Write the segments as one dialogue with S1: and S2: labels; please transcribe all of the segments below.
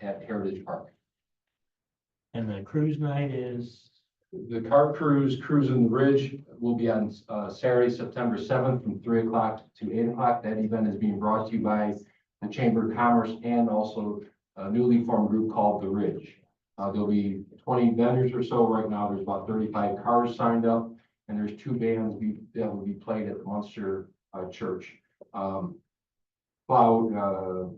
S1: at Heritage Park.
S2: And the cruise night is,
S1: The car cruise, cruising the ridge will be on uh, Saturday, September seventh, from three o'clock to eight o'clock. That event is being brought to you by the Chamber of Commerce and also a newly formed group called The Ridge. Uh, There'll be twenty vendors or so. Right now, there's about thirty-five cars signed up, and there's two bands be- that will be played at the Munster uh, Church. Um, Cloud, uh,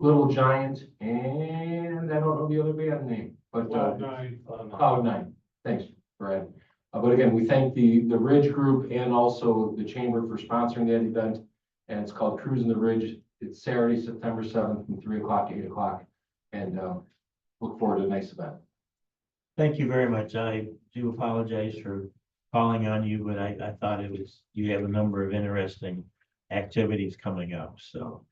S1: Little Giant, and I don't know the other band name, but. uh, Cloud nine, Oh, thanks, Brad. Uh, but again, we thank the, the Ridge Group and also the Chamber for sponsoring that event. And it's called Cruising the Ridge. It's Saturday, September seventh, from three o'clock to eight o'clock. And, um, look forward to a nice event.
S2: thank you very much. I do apologize for calling on you, but I, I thought it was, you have a number of interesting activities coming up, so.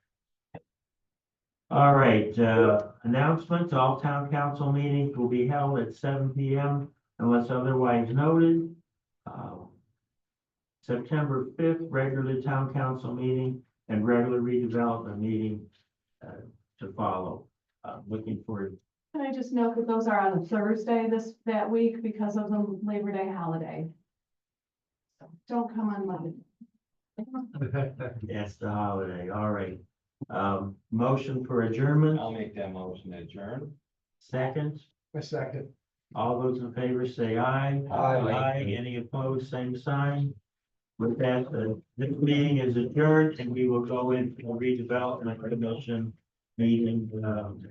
S2: All right, uh, announcements, all town council meetings will be held at seven P M unless otherwise noted. Uh, September fifth, regular town council meeting and regular redevelopment meeting, uh, to follow. Uh, looking forward
S3: Can I just note that those are on Thursday this, that week because of the Labor Day holiday? So Don't come on Monday.
S2: That's the holiday, all right. Um, motion for adjournment,
S4: I'll make that motion to adjourn.
S2: second,
S5: A second.
S2: all those in favor say aye.
S5: Aye.
S2: any opposed, same sign. With that, uh, this meeting is adjourned and we will go into the redevelopment commission meeting, um,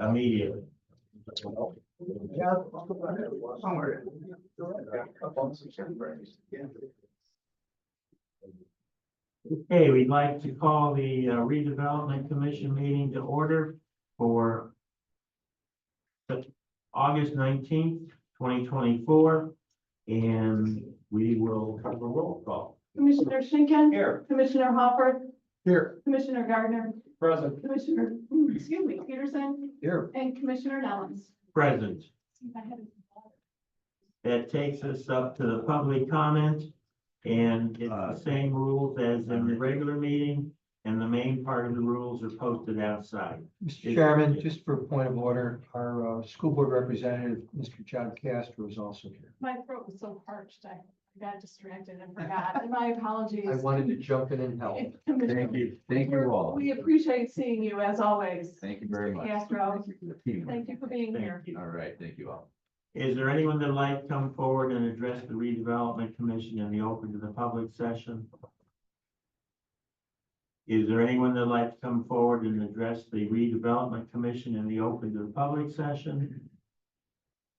S2: immediately.
S5: Yeah. Somewhere. Up on some surveys.
S2: Okay, we'd like to call the uh, redevelopment commission meeting to order for Sep- August nineteenth, twenty twenty-four, and we will have a roll call.
S3: Commissioner Schinkin.
S4: Here.
S3: Commissioner Hopper,
S5: Here.
S3: Commissioner Gardner,
S4: Present.
S3: Commissioner, hmm, excuse me, Peterson,
S5: Here.
S3: and Commissioner Nellens.
S2: Present.
S3: See if I had it.
S2: That takes us up to the public comment, and it's the same rules as in the regular meeting, and the main part of the rules are posted outside.
S5: Mr. Chairman, just for point of order, our uh, school board representative, Mr. John Castro is also here.
S3: My throat was so parched, I got distracted and forgot. My apologies.
S5: I wanted to jump in and help.
S3: Commissioner,
S2: you.
S1: Thank you all.
S3: We appreciate seeing you as always.
S1: Thank you very much.
S3: Castro.
S1: Team.
S3: Thank you for being here.
S2: Thank you.
S1: All right, thank you all.
S2: Is there anyone that'd like to come forward and address the redevelopment commission in the open to the public session? Is there anyone that'd like to come forward and address the redevelopment commission in the open to the public session?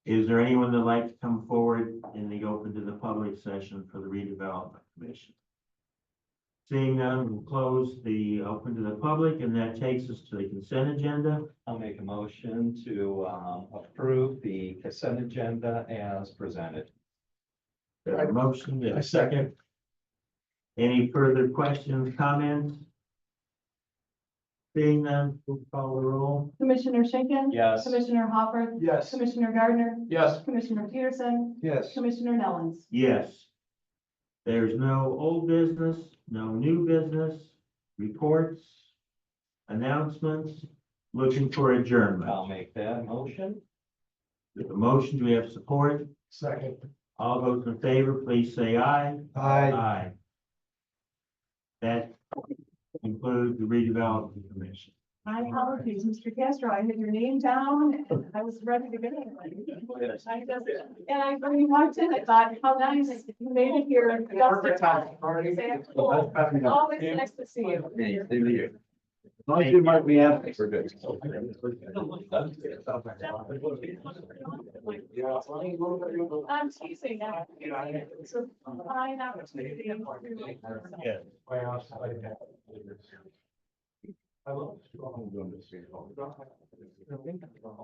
S2: Is there anyone that'd like to come forward in the open to the public session for the redevelopment commission? Seeing none, we'll close the open to the public, and that takes us to the consent agenda.
S4: I'll make a motion to um, approve the consent agenda as presented.
S2: There are motion and
S5: I
S2: a second. Any further questions, comments? Seeing none, we'll call the roll.
S3: Commissioner Schinkin.
S4: Yes.
S3: Commissioner Hopper,
S5: Yes.
S3: Commissioner Gardner,
S1: Yes.
S3: Commissioner Peterson,
S5: Yes.
S3: Commissioner Nellens.
S2: Yes. There's no old business, no new business, reports, announcements, looking for
S4: I'll
S2: adjournment.
S4: make that motion.
S2: With the motion, do we have support?
S5: Second.
S2: All those in favor, please say aye.
S5: Aye.
S2: Aye. That includes the redevelopment commission.
S3: My apologies, Mr. Castro, I had your name down and I was ready to go. I just- And I, when you walked in, I thought, how nice, you made it here. just in time. Exactly. Always nice to see you.
S1: you might be happy.
S3: I'm teasing now. It's a fine opportunity.
S2: Yeah.
S5: I love.